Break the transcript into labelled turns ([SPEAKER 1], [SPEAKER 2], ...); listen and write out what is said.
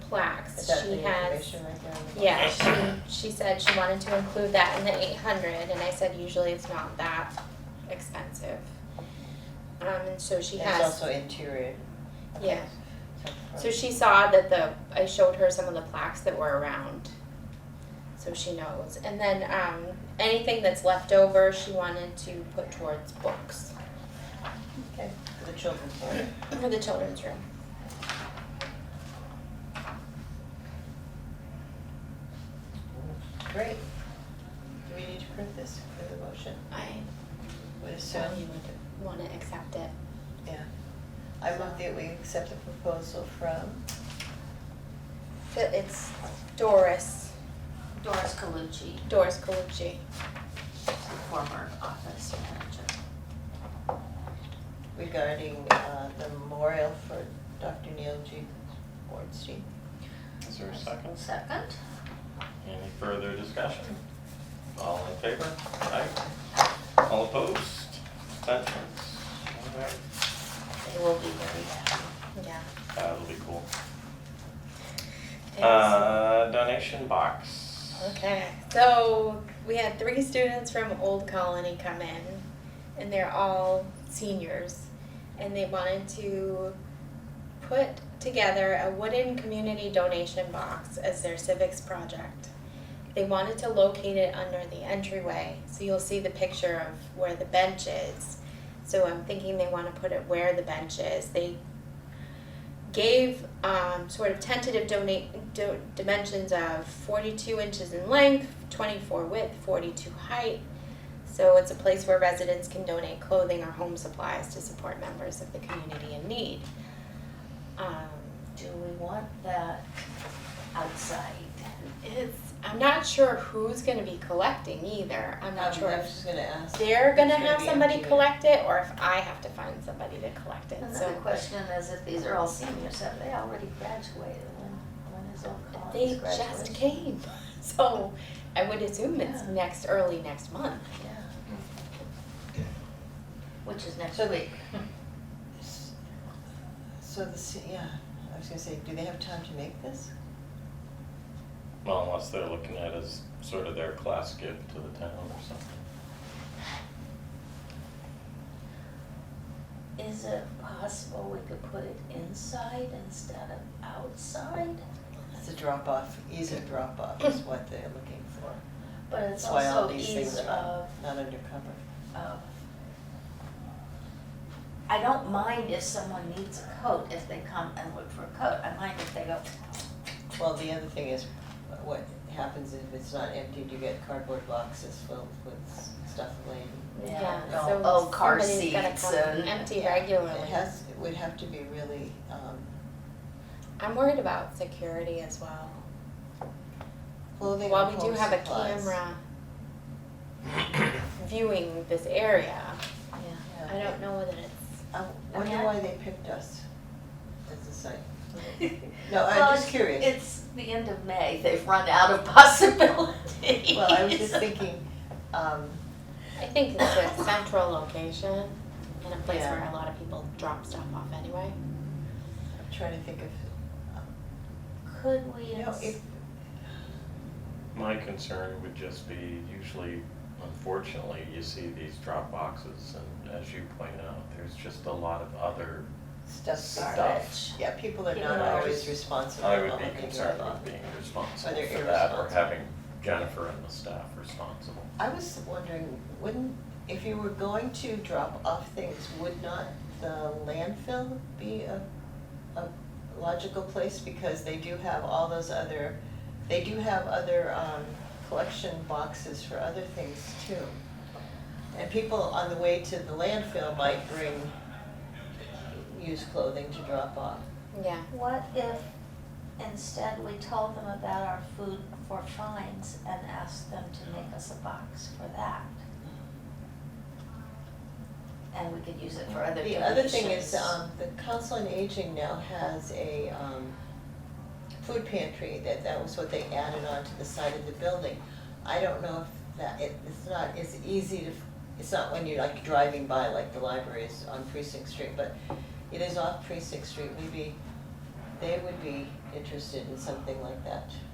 [SPEAKER 1] Is that
[SPEAKER 2] tasks,
[SPEAKER 1] the
[SPEAKER 2] she has,
[SPEAKER 1] information right there on the
[SPEAKER 2] yeah, she, she said she wanted to include that in the eight hundred, and I said usually it's not that expensive. Um, and so she
[SPEAKER 1] And It's
[SPEAKER 2] has,
[SPEAKER 1] also interior. Okay.
[SPEAKER 2] Yeah.
[SPEAKER 1] So,
[SPEAKER 2] so she saw that the, I showed her some of the plaques that were around, so she knows. And then, um, anything that's left over, she wanted to put towards books
[SPEAKER 1] okay, for the children's one.
[SPEAKER 2] for the children's room.
[SPEAKER 1] Great. Do we need to prove this for the motion?
[SPEAKER 2] I
[SPEAKER 1] Would assume,
[SPEAKER 2] thought you would wanna accept it.
[SPEAKER 1] yeah. I move that we accept the proposal from,
[SPEAKER 2] But It's Doris,
[SPEAKER 3] Doris Colucci,
[SPEAKER 2] Doris Colucci.
[SPEAKER 3] former office manager.
[SPEAKER 1] regarding uh, the memorial for Dr. Neil G. Bornstein.
[SPEAKER 4] Is there a second?
[SPEAKER 3] Second?
[SPEAKER 4] Any further discussion? All in favor? Aye. All opposed? Abstentions? All right. Uh,
[SPEAKER 3] They will be very happy.
[SPEAKER 2] Yeah.
[SPEAKER 4] That'll be cool.
[SPEAKER 2] Thanks.
[SPEAKER 4] Uh, donation box.
[SPEAKER 2] Okay, so we had three students from Old Colony come in, and they're all seniors, and they wanted to put together a wooden community donation box as their civics project. They wanted to locate it under the entryway, so you'll see the picture of where the bench is. So I'm thinking they want to put it where the bench is. They gave um, sort of tentative donate do, dimensions of 42 inches in length, 24 width, 42 height. So it's a place where residents can donate clothing or home supplies to support members of the community in need. Um,
[SPEAKER 3] Do we want that outside?
[SPEAKER 2] it's, I'm not sure who's going to be collecting either. I'm not sure
[SPEAKER 1] Um, I was
[SPEAKER 2] if
[SPEAKER 1] just gonna ask.
[SPEAKER 2] they're going to
[SPEAKER 1] It's gonna
[SPEAKER 2] have
[SPEAKER 1] be
[SPEAKER 2] somebody
[SPEAKER 1] empty.
[SPEAKER 2] collect it or if I have to find somebody to collect it.
[SPEAKER 3] Another
[SPEAKER 2] so
[SPEAKER 3] question is if these are all seniors, have they already graduated? When, when is Old Colony's
[SPEAKER 2] They
[SPEAKER 3] graduation?
[SPEAKER 2] just came, so I would assume it's
[SPEAKER 3] Yeah.
[SPEAKER 2] next, early next month.
[SPEAKER 3] Yeah. Which is next
[SPEAKER 1] So
[SPEAKER 3] week.
[SPEAKER 1] So the, ci- yeah, I was gonna say, do they have time to make this?
[SPEAKER 4] Well, unless they're looking at it as sort of their class gift to the town or something.
[SPEAKER 3] Is it possible we could put it inside instead of outside?
[SPEAKER 1] It's a drop off, ease of drop off is what they're looking for.
[SPEAKER 3] But it's
[SPEAKER 1] That's why all
[SPEAKER 3] also
[SPEAKER 1] these
[SPEAKER 3] ease
[SPEAKER 1] things
[SPEAKER 3] of.
[SPEAKER 1] are not undercover.
[SPEAKER 3] of- I don't mind if someone needs a coat, if they come and look for a coat, I mind if they go,
[SPEAKER 1] Well, the other thing is, what happens if it's not emptied, you get cardboard boxes filled with stuff laying.
[SPEAKER 3] yeah,
[SPEAKER 1] no,
[SPEAKER 2] so
[SPEAKER 3] oh, car
[SPEAKER 2] somebody's gotta
[SPEAKER 3] seats
[SPEAKER 2] come
[SPEAKER 3] and-
[SPEAKER 2] Empty
[SPEAKER 1] Yeah,
[SPEAKER 2] regularly.
[SPEAKER 1] It has, it would have to be really, um,
[SPEAKER 2] I'm worried about security as well.
[SPEAKER 1] clothing or
[SPEAKER 2] While we do
[SPEAKER 1] home
[SPEAKER 2] have a
[SPEAKER 1] supplies.
[SPEAKER 2] camera viewing this area,
[SPEAKER 3] yeah,
[SPEAKER 2] I
[SPEAKER 1] Yeah.
[SPEAKER 2] don't know whether it's,
[SPEAKER 1] I
[SPEAKER 3] I
[SPEAKER 1] wonder
[SPEAKER 3] mean, I-
[SPEAKER 1] why they picked us as a site. No, I'm
[SPEAKER 3] Well,
[SPEAKER 1] just
[SPEAKER 3] it's-
[SPEAKER 1] curious.
[SPEAKER 3] It's the end of May, they've run out of possibilities.
[SPEAKER 1] Well, I was just thinking, um,
[SPEAKER 2] I think it's a central location and a place
[SPEAKER 1] Yeah.
[SPEAKER 2] where a lot of people drop stuff off anyway.
[SPEAKER 1] I'm trying to think of, um,
[SPEAKER 3] Could we,
[SPEAKER 1] you know,
[SPEAKER 3] ins-
[SPEAKER 1] if,
[SPEAKER 4] My concern would just be usually, unfortunately, you see these drop boxes and as you point out, there's just a lot of other
[SPEAKER 1] stuff,
[SPEAKER 4] stuff.
[SPEAKER 1] yeah, people are
[SPEAKER 3] People
[SPEAKER 1] not
[SPEAKER 3] are-
[SPEAKER 1] always responsible.
[SPEAKER 4] I would
[SPEAKER 1] about
[SPEAKER 4] be
[SPEAKER 1] what they
[SPEAKER 4] concerned
[SPEAKER 1] do.
[SPEAKER 4] with being responsible
[SPEAKER 1] Whether
[SPEAKER 4] for that or
[SPEAKER 1] irresponsible.
[SPEAKER 4] having Jennifer and the staff responsible.
[SPEAKER 1] I was wondering, wouldn't, if you were going to drop off things, would not the landfill be a, a logical place? Because they do have all those other, they do have other, um, collection boxes for other things too. And people on the way to the landfill might bring used clothing to drop off.
[SPEAKER 2] Yeah.
[SPEAKER 3] what if instead we told them about our food for fines and asked them to make us a box for that? And we could use it for other
[SPEAKER 1] The
[SPEAKER 3] donations.
[SPEAKER 1] other thing is, um, the Council on Aging now has a, um, food pantry, that, that was what they added onto the side of the building. I don't know if that, it, it's not, it's easy to, it's not when you're like driving by, like the library is on Precinct Street, but it is off Precinct Street, maybe they would be interested in something like that.